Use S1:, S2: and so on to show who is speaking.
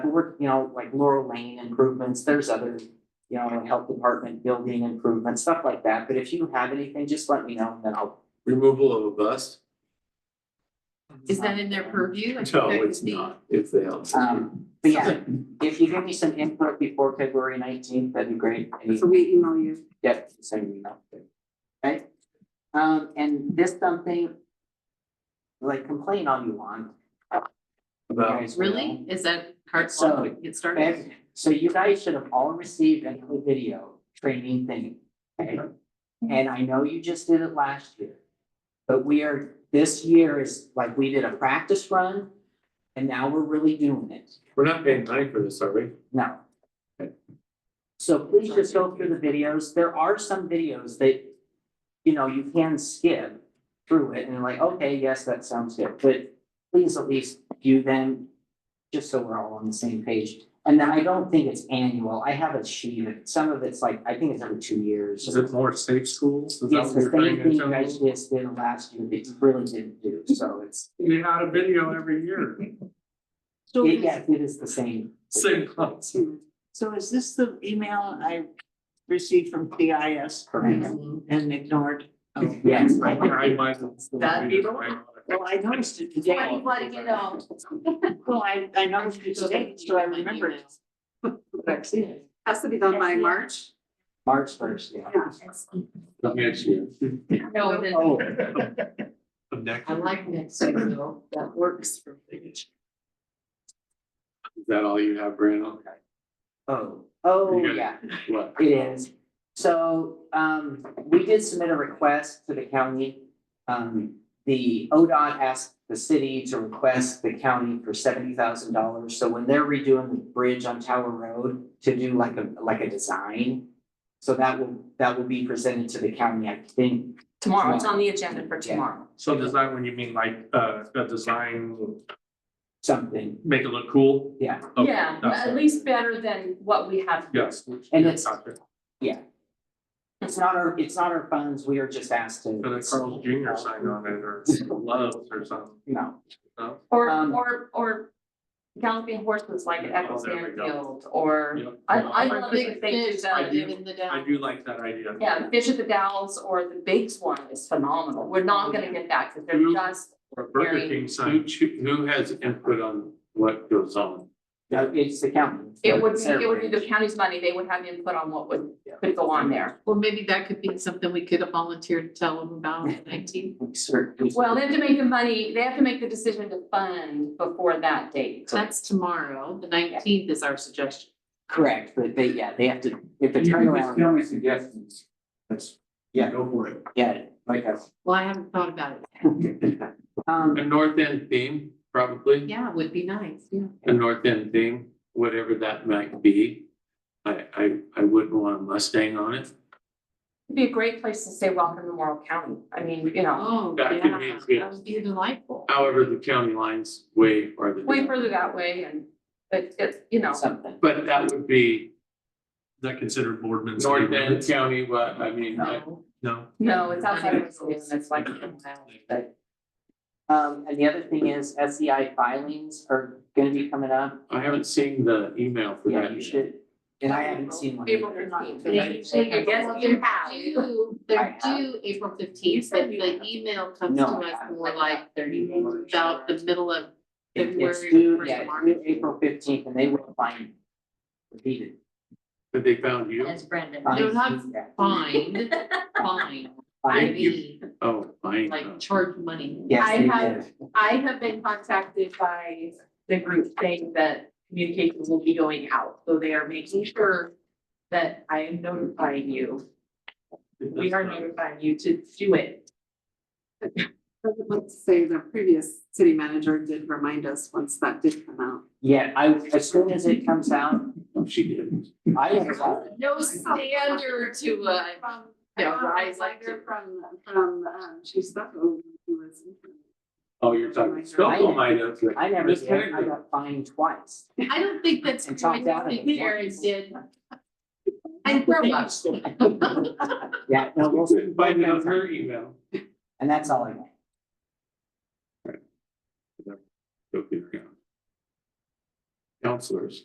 S1: and we're, you know, like Laurel Lane improvements, there's other, you know, health department building improvements, stuff like that, but if you have anything, just let me know, and then I'll.
S2: Removal of a bus?
S3: Is that in their purview? I think
S2: No,
S3: that could
S2: it's
S3: be-
S2: not, if they don't.
S1: Um, but yeah, if you give me some input before February nineteenth, that'd be great. Any-
S4: So we email you.
S1: Yeah, send me up there. Right? Um, and this something. Like complain all you want. you
S2: About,
S1: guys
S3: Really? Is that part
S1: So-
S3: one? Get
S1: will.
S3: started?
S1: And So you guys should have all received a new video training thing, okay? And I know you just did it last year. But we are, this year is like, we did a practice run. And now we're really doing it.
S2: we're not paying money for this, are we?
S1: No.
S2: Okay.
S1: So please just go through the videos. There are some videos that, you know, you can skip through it and like, okay, yes, that sounds good, but please at least view them just so we're all on the same page. And then I don't think it's annual. I have a sheet. and Some of it's like, I think it's every two years.
S2: Is it more safe schools? Is that
S1: It's
S2: what
S1: the
S2: you're trying
S1: same
S2: to
S1: thing you
S2: tell
S1: guys
S2: me?
S1: just did last year, but you really didn't do, so it's,
S2: You had a video every year,
S4: So, is-
S1: yeah, it is the same.
S2: same class.
S4: so is this the email I received from CIS
S1: Correct.
S4: and ignored? Oh,
S1: Yes.
S2: I might.
S3: That'd be the one.
S4: Well, I noticed it
S3: Why do
S4: today.
S3: you wanna get out?
S4: Well, I, I noticed it today, so I remembered it. But I've seen it.
S5: Has to be done by March.
S1: March first, yeah.
S2: Not Next year.
S3: No, it isn't.
S1: Oh,
S2: Of next,
S3: I
S2: year.
S3: like next year though. That works for me.
S2: is that all you have, Brandon?
S1: oh, oh,
S2: You got it.
S1: yeah,
S2: What?
S1: it is. So, um, we did submit a request to the county. Um, the ODOT asked the city to request the county for seventy thousand dollars. So when they're redoing the bridge on Tower Road to do like a, like a design. So that will, that will be presented to the county, I think.
S5: Tomorrow, it's on the agenda for tomorrow.
S6: So design, when you mean like, uh, a design,
S1: Something,
S6: make it look cool?
S1: yeah.
S6: Okay,
S5: Yeah, but
S6: that's
S5: at
S6: it.
S5: least better than what we have.
S6: Yes.
S1: And it's-
S6: Gotcha.
S1: It's not our, it's not our funds. We are just asked to.
S6: And then Carl Junior signed on it or loves or something.
S1: No,
S5: Or,
S1: Um,
S5: or, or galloping horses like at
S6: Oh,
S5: Echo
S6: there we go.
S5: Sandfield or,
S6: Yep.
S5: I, I love
S3: Big
S5: it if they do
S3: fish
S5: that.
S6: do-
S3: in the
S6: I
S3: down.
S6: do like that idea.
S5: Yeah, Fish at the Dalles or the Bakes one is phenomenal. We're not gonna get that because they're
S6: Who-
S5: just,
S6: Or Burger
S5: Very-
S6: King sign.
S2: Who choo- who has input on what goes on?
S1: no, it's the county.
S5: it would, be- it would be the county's money. They would have input on what would, could go on there.
S3: Well, maybe that could be something we could have volunteered to tell them about in nineteen.
S1: Certainly.
S5: Well, they have to make the money, they have to make the decision to fund before that date.
S3: That's tomorrow. The nineteenth is our suggestion.
S1: Correct, but they, yeah, they have to, if it's turnaround,
S2: me suggestions. That's,
S1: Yeah.
S2: go for it.
S1: yeah, like uh, a.
S3: Well, I haven't thought about it.
S1: Um,
S2: A north end theme, probably.
S3: Yeah, it would be nice, yeah.
S2: a north end thing, whatever that might be. I, I, I wouldn't want a Mustang on it.
S5: It'd be a great place to say welcome to Morrow County. I mean, you know,
S3: Oh,
S2: That could be
S3: yeah,
S2: good.
S3: that would be delightful.
S2: However, the county line's way
S3: Oh.
S2: farther.
S5: way
S2: down.
S5: further that way and, but it's, you know,
S1: something,
S2: But that would be
S6: Is that considered Boardman? city
S2: north end
S6: limits?
S2: county, what, I mean, I-
S3: No.
S6: No.
S5: no, it's outside of the city and it's like. a mile.
S1: but. Um, and the other thing is SEI filings are gonna be coming up,
S2: I haven't seen the email for
S1: yeah,
S2: that.
S1: you
S2: yet.
S1: should, and I haven't seen one.
S3: April
S1: either.
S3: fifteenth.
S5: They- they- I guess you have.
S3: They're due April fifteenth, but the email comes to
S1: No, I
S3: us
S1: haven't.
S3: more like thirty days, about the middle of
S1: It- It's
S3: February,
S1: due,
S3: first
S1: yeah,
S3: of
S1: it's
S3: March.
S1: due April fifteenth and they will find. Repeated.
S2: But they found you?
S7: That's Brandon.
S3: They're not
S1: Yeah,
S3: Find, find, I
S1: find-
S3: mean,
S2: Oh, fine.
S3: like charge money.
S1: Yes,
S5: I
S1: they
S5: have-
S1: did.
S5: I have been contacted by the group saying that communications will be going out, so they are making sure that I am notifying you. We are notifying you to do it.
S7: Let's say the previous city manager did remind us once that did come out.
S1: Yeah, I, as soon as it comes out,
S2: She did.
S1: I have,
S3: No standard to, uh, yeah, rise like to.
S7: From, from, um, Chief Stucco, who was.
S2: Oh, you're talking, Stockholm, I know.
S1: I never,
S2: Miss
S1: did. I
S2: Perry.
S1: got fined twice.
S3: I don't think that's,
S1: And
S3: I
S1: talked out of
S3: think
S1: it.
S3: Jared did. And grow up.
S1: Yeah, no, we'll.
S2: Find out her email.
S1: And that's all I got.
S2: Go figure it out. Counselors.